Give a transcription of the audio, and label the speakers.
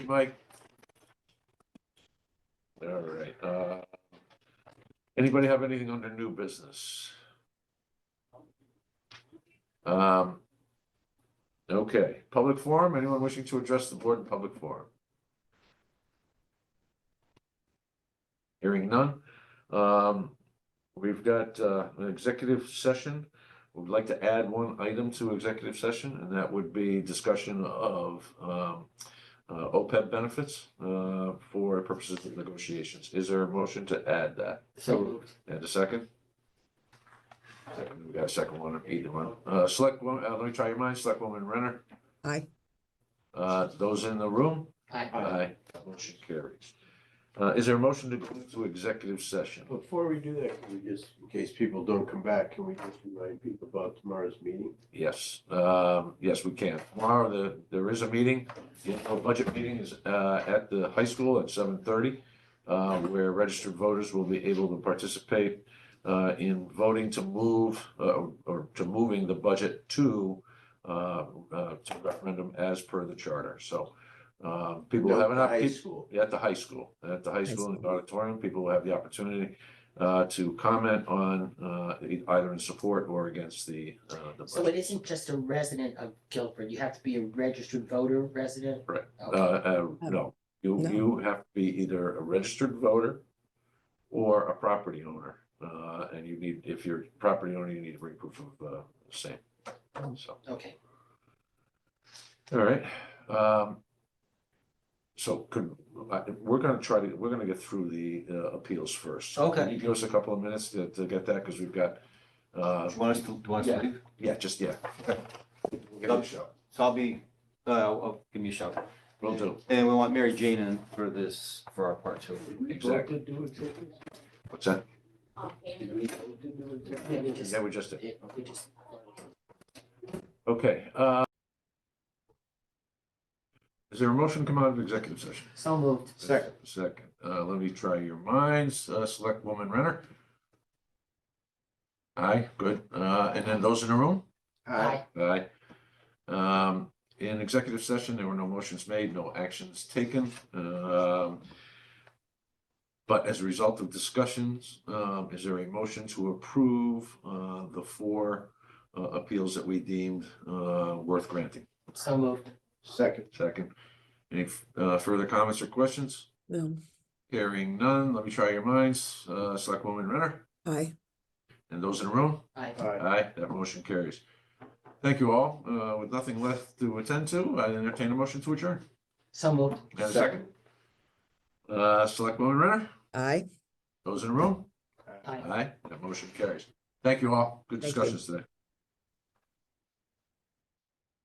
Speaker 1: Mike? All right, uh, anybody have anything under new business? Um, okay, public forum, anyone wishing to address the board in public forum? Hearing none, um, we've got, uh, an executive session. We'd like to add one item to executive session, and that would be discussion of, um, uh, OPEB benefits, uh, for purposes of negotiations. Is there a motion to add that?
Speaker 2: So moved.
Speaker 1: And a second? Second, we got a second one, either one. Uh, select one, uh, let me try your minds. Select woman Renner.
Speaker 3: Aye.
Speaker 1: Uh, those in the room?
Speaker 2: Aye.
Speaker 1: Aye. That Motion carries. Uh, is there a motion to go into executive session?
Speaker 4: Before we do that, can we just, in case people don't come back, can we just remind people about tomorrow's meeting?
Speaker 1: Yes, um, yes, we can. Tomorrow, the, there is a meeting, the annual budget meeting is, uh, at the high school at seven thirty. Uh, where registered voters will be able to participate, uh, in voting to move, uh, or to moving the budget to. Uh, uh, to referendum as per the charter, so, um, people have an,
Speaker 4: High
Speaker 1: opportunity
Speaker 4: school.
Speaker 1: at the high school, at the high school in the auditorium, people will have the opportunity uh, to comment on uh, e- either in support or against the uh, the
Speaker 2: So it
Speaker 1: budget.
Speaker 2: isn't just a resident of Guilford, you have to be a registered voter resident?
Speaker 1: Right. Uh,
Speaker 2: Okay.
Speaker 1: uh, no, you,
Speaker 3: No.
Speaker 1: you have to be either a registered voter or a property owner. Uh, and you need, if you're a property owner, you need to bring proof of uh, same. So,
Speaker 2: Okay,
Speaker 1: all right. Um, so could, I- we're gonna try to, we're gonna get through the uh, appeals first. So
Speaker 2: Okay.
Speaker 1: Can you give us a couple of minutes to, to get that? Because we've got uh,
Speaker 5: Do you want us to, do you want us to leave?
Speaker 1: Yeah, just, yeah.
Speaker 5: Okay.
Speaker 1: We'll give it a shot.
Speaker 5: So I'll be, uh, I'll I'll give me a shout.
Speaker 1: Will do.
Speaker 5: And we want Mary Jane in for this, for our part two.
Speaker 1: Exactly. What's that?
Speaker 2: yeah, we just,
Speaker 1: Yeah, we just did.
Speaker 2: we just.
Speaker 1: Okay, uh. Is there a motion to come out of executive session?
Speaker 2: So moved.
Speaker 4: Second.
Speaker 1: Second. Uh, let me try your minds. Uh, select woman Renner. Aye, good. Uh, and then those in the room?
Speaker 2: Aye.
Speaker 1: Aye. Um, in executive session, there were no motions made, no actions taken. Um, but as a result of discussions, um, is there a motion to approve, uh, the four, uh, appeals that we deemed, uh, worth granting?
Speaker 2: So moved.
Speaker 4: Second.
Speaker 1: Second. Any, uh, further comments or questions?
Speaker 3: No,
Speaker 1: Hearing none, let me try your minds. Uh, Selectwoman Renner
Speaker 3: aye.
Speaker 1: and those in the room?
Speaker 2: Aye.
Speaker 4: Aye.
Speaker 1: Aye, that motion carries. Thank you all. Uh, with nothing left to attend to, I entertain a motion to adjourn.
Speaker 2: So moved.
Speaker 1: And a second. Uh, Selectwoman Renner,
Speaker 3: Aye.
Speaker 1: those in the room?
Speaker 2: Aye.
Speaker 1: Aye, that motion carries. Thank you all. Good
Speaker 3: Thank you.
Speaker 1: discussions today.